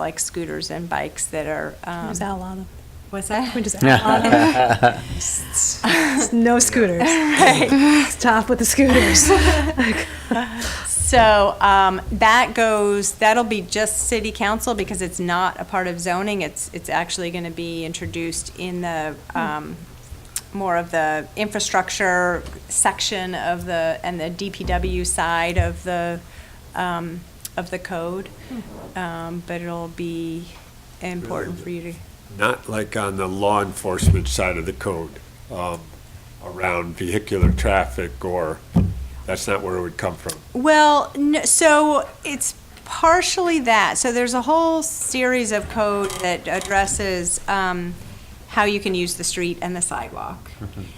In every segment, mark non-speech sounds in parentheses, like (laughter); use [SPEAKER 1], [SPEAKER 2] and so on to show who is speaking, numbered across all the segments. [SPEAKER 1] like scooters and bikes that are. um,
[SPEAKER 2] Just outlaw
[SPEAKER 3] (laughs)
[SPEAKER 2] them.
[SPEAKER 1] What's
[SPEAKER 2] Can
[SPEAKER 1] that?
[SPEAKER 2] we just outlaw them? Just No (laughs) scooters. Stop with the scooters.
[SPEAKER 1] (laughs) So um, that goes, that'll be just city council because it's not a part of zoning. It's, it's actually going to be introduced in the, um, more of the infrastructure section of the, and the DPW side of the, um, of the code. Um, But it'll be important for you to,
[SPEAKER 4] not like on the law enforcement side of the code, um, around vehicular traffic or, that's not where it would come from.
[SPEAKER 1] Well, no, so it's partially that. So there's a whole series of code that addresses um, how you can use the street and the sidewalk.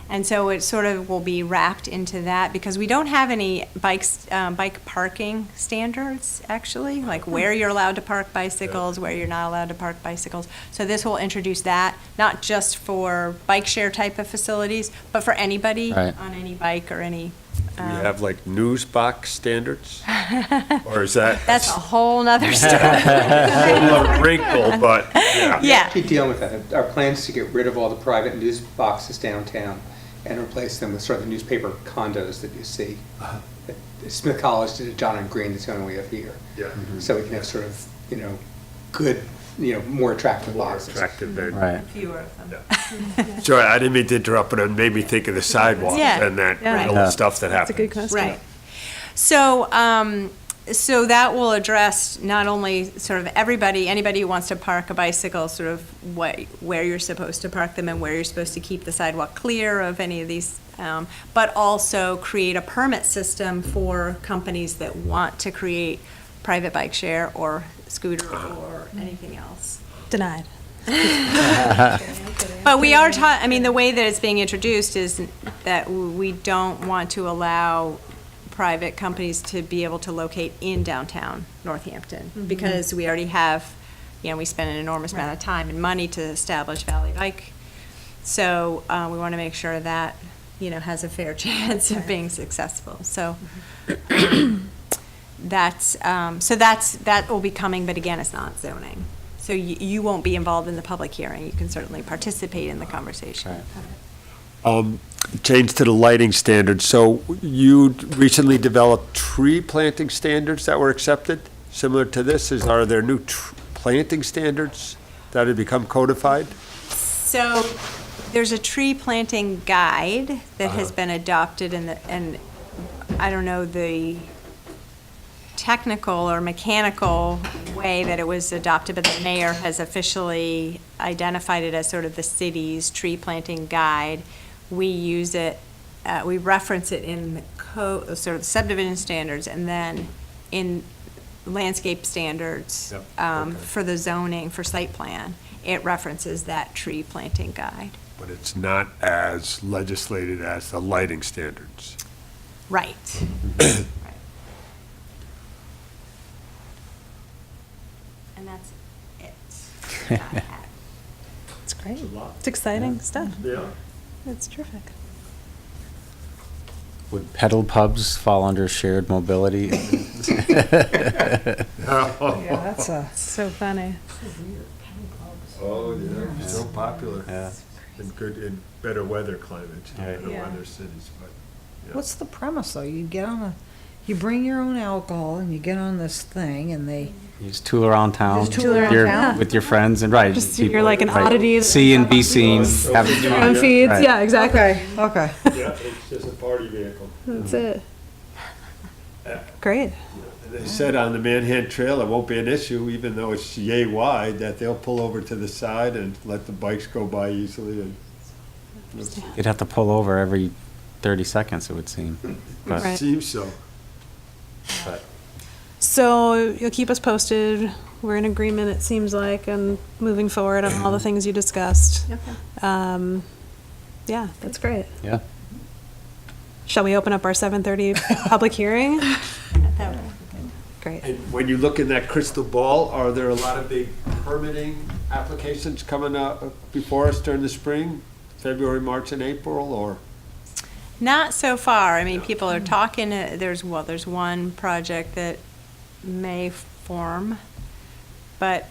[SPEAKER 1] And so it sort of will be wrapped into that because we don't have any bikes, um, bike parking standards, actually, like where you're allowed to park bicycles, where you're not allowed to park bicycles. So this will introduce that, not just for bike share type of facilities, but for anybody
[SPEAKER 3] Right.
[SPEAKER 1] on any bike or any. uh,
[SPEAKER 4] Do we
[SPEAKER 1] Oh.
[SPEAKER 4] have like news box standards? Or is that?
[SPEAKER 1] That's a whole nother story.
[SPEAKER 4] (laughs) A wrinkle, but, yeah.
[SPEAKER 1] Yeah,
[SPEAKER 5] Keep dealing with that. Our plans to get rid of all the private news boxes downtown and replace them with sort of the newspaper condos that you see.
[SPEAKER 4] Uh-huh.
[SPEAKER 5] Smith College did it, John and Green, that's the only way up here.
[SPEAKER 4] Yeah.
[SPEAKER 5] So we can have sort of, you know, good, you know, more attractive
[SPEAKER 4] More
[SPEAKER 5] boxes.
[SPEAKER 4] attractive than-
[SPEAKER 3] Right.
[SPEAKER 1] fewer of them.
[SPEAKER 4] Sorry, I didn't mean to interrupt, but it made me think of the sidewalks
[SPEAKER 1] Yeah.
[SPEAKER 4] and that
[SPEAKER 2] Yeah.
[SPEAKER 4] wrinkle
[SPEAKER 3] Yeah.
[SPEAKER 4] stuff that
[SPEAKER 2] That's a good
[SPEAKER 4] happens.
[SPEAKER 2] question.
[SPEAKER 1] Right. So, um, so that will address not only sort of everybody, anybody who wants to park a bicycle, sort of what, where you're supposed to park them and where you're supposed to keep the sidewalk clear of any of these, um, but also create a permit system for companies that want to create private bike share or scooter or anything else.
[SPEAKER 2] Denied.
[SPEAKER 1] But we are ta, I mean, the way that it's being introduced is that we don't want to allow private companies to be able to locate in downtown Northampton, because we already have, you know, we spend an enormous amount of time and money to establish Valley Bike. So, uh, we want to make sure that, you know, has a fair (laughs) chance of being successful, so. um, That's, um, so that's, that will be coming, but again, it's not zoning. So you, you won't be involved in the public hearing, you can certainly participate in the conversation.
[SPEAKER 3] Right.
[SPEAKER 4] Um, Change to the lighting standards. So you recently developed tree planting standards that were accepted, similar to this? Is, are there new tr- planting standards that have become codified?
[SPEAKER 1] So there's a tree planting guide that has
[SPEAKER 4] Uh-huh.
[SPEAKER 1] been adopted and, the- and I don't know the technical or mechanical way that it was adopted, but the mayor has officially identified it as sort of the city's tree planting guide. We use it, uh, we reference it in the code, sort of subdivision standards and then in landscape standards
[SPEAKER 4] Yep,
[SPEAKER 1] um,
[SPEAKER 4] okay.
[SPEAKER 1] for the zoning, for site plan. It references that tree planting guide.
[SPEAKER 4] But it's not as legislated as the lighting (laughs) standards.
[SPEAKER 1] Right. And that's it.
[SPEAKER 2] It's great. It's exciting stuff.
[SPEAKER 4] Yeah.
[SPEAKER 2] It's terrific.
[SPEAKER 3] Would pedal pubs fall under
[SPEAKER 2] (laughs)
[SPEAKER 3] shared mobility?
[SPEAKER 2] Yeah, that's So funny.
[SPEAKER 4] Oh, yeah, so popular
[SPEAKER 3] Yeah.
[SPEAKER 4] in good, in better weather climates,
[SPEAKER 3] Right.
[SPEAKER 4] better
[SPEAKER 2] Yeah.
[SPEAKER 4] weather cities, but. yeah.
[SPEAKER 6] What's the premise though? You get on a, you bring your own alcohol and you get on this thing and they.
[SPEAKER 3] You just tool around town.
[SPEAKER 6] Just tool around
[SPEAKER 3] with your-
[SPEAKER 6] town.
[SPEAKER 3] With your friends and, right.
[SPEAKER 2] Just-
[SPEAKER 3] people-
[SPEAKER 2] you're like an
[SPEAKER 3] right,
[SPEAKER 2] oddity.
[SPEAKER 3] See and be seen. have-
[SPEAKER 2] On feeds,
[SPEAKER 3] Right.
[SPEAKER 2] yeah, exactly.
[SPEAKER 6] Okay.
[SPEAKER 4] Yeah, it's just a party vehicle.
[SPEAKER 2] That's it. Great.
[SPEAKER 4] They said on the Manhattan Trail, it won't be an issue, even though it's yay wide, that they'll pull over to the side and let the bikes go by easily and.
[SPEAKER 3] You'd have to pull over every 30 seconds, it would seem. But-
[SPEAKER 2] Right.
[SPEAKER 4] Seems so.
[SPEAKER 2] So you'll keep us posted. We're in agreement, it seems like, and moving forward on all the things you discussed. Um, yeah, that's great.
[SPEAKER 3] Yeah.
[SPEAKER 2] Shall we open up our
[SPEAKER 3] (laughs)
[SPEAKER 2] 7:30 public (laughs) hearing? Great.
[SPEAKER 4] And when you look in that crystal ball, are there a lot of big permitting applications coming up before us during the spring? February, March and April, or?
[SPEAKER 1] Not so far. I mean, people are talking, uh, there's, well, there's one project that may form, but